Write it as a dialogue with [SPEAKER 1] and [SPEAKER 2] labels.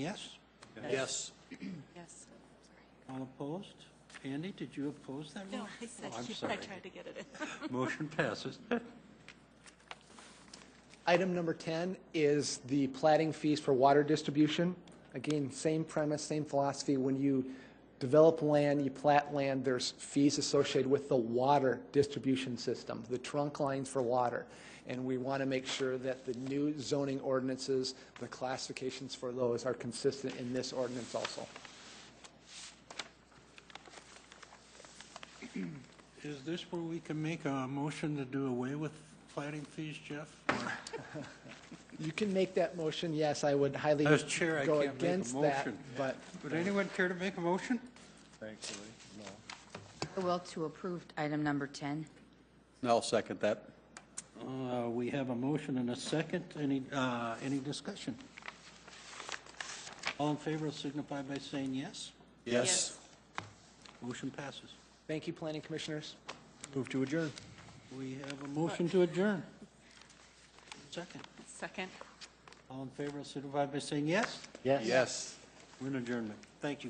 [SPEAKER 1] Yes?
[SPEAKER 2] Yes.
[SPEAKER 3] Yes.
[SPEAKER 1] All opposed? Andy, did you oppose that
[SPEAKER 3] No,
[SPEAKER 1] motion?
[SPEAKER 3] I said,
[SPEAKER 1] Oh, I'm
[SPEAKER 3] yes. I
[SPEAKER 1] sorry.
[SPEAKER 3] tried to get it in.
[SPEAKER 1] Motion passes.
[SPEAKER 4] Item number 10 is the plating fees for water distribution. Again, same premise, same philosophy. When you develop land, you plat land, there's fees associated with the water distribution system, the trunk lines for water. And we want to make sure that the new zoning ordinances, the classifications for those are consistent in this ordinance also.
[SPEAKER 1] Is this where we can make a motion to do away with plating fees, Jeff? Or-
[SPEAKER 4] You can make that motion, yes, I would highly
[SPEAKER 1] As chair, I
[SPEAKER 4] go
[SPEAKER 1] can't make a
[SPEAKER 4] against that,
[SPEAKER 1] motion.
[SPEAKER 4] but
[SPEAKER 1] Would anyone care to make a motion?
[SPEAKER 5] I will to approve item number 10.
[SPEAKER 2] I'll second that.
[SPEAKER 1] Uh, We have a motion and a second. Any, uh, any discussion? All in favor signify by saying yes.
[SPEAKER 2] Yes.
[SPEAKER 1] Motion passes.
[SPEAKER 4] thank you, planning commissioners.
[SPEAKER 2] Move to adjourn.
[SPEAKER 1] We have a motion to adjourn. Second.
[SPEAKER 3] Second.
[SPEAKER 1] All in favor signify by saying yes.
[SPEAKER 2] Yes.
[SPEAKER 1] We're in adjournment. Thank you.